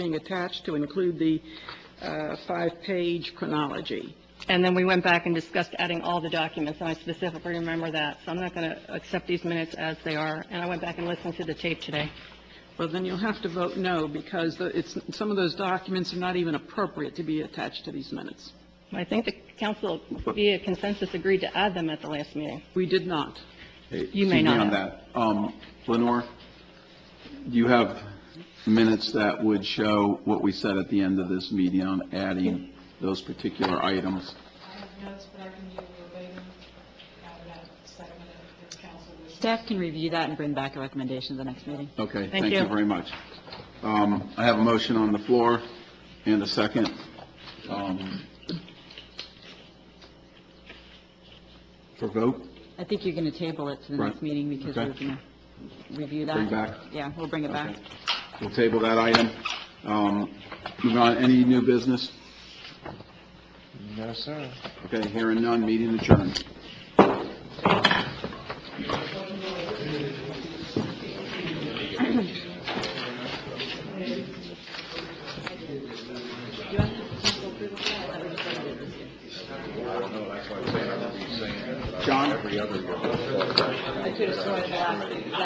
being attached to include the uh, five-page chronology. And then we went back and discussed adding all the documents, and I specifically remember that. So I'm not going to accept these minutes as they are, and I went back and listened to the tape today. Well, then you'll have to vote no, because the- it's, some of those documents are not even appropriate to be attached to these minutes. I think the council via consensus agreed to add them at the last meeting. We did not. You may not Excuse me on that. Um, Lenore, you have minutes that would show what we said at the end of this meeting on adding those particular items. I have notes, but I can give you a later, have that segment if the council wishes. Staff can review that and bring back a recommendation at the next meeting. Okay, Thank thank you you. very much. Um, I have a motion on the floor and a second. Um, For vote? I think you're going to table it to the Right. next meeting because Okay. we're going to review that. Bring back. Yeah, we'll bring it back. Okay. We'll table that item. Um, Move on, any new business? No, sir. Okay, hearing none, meeting adjourned. John?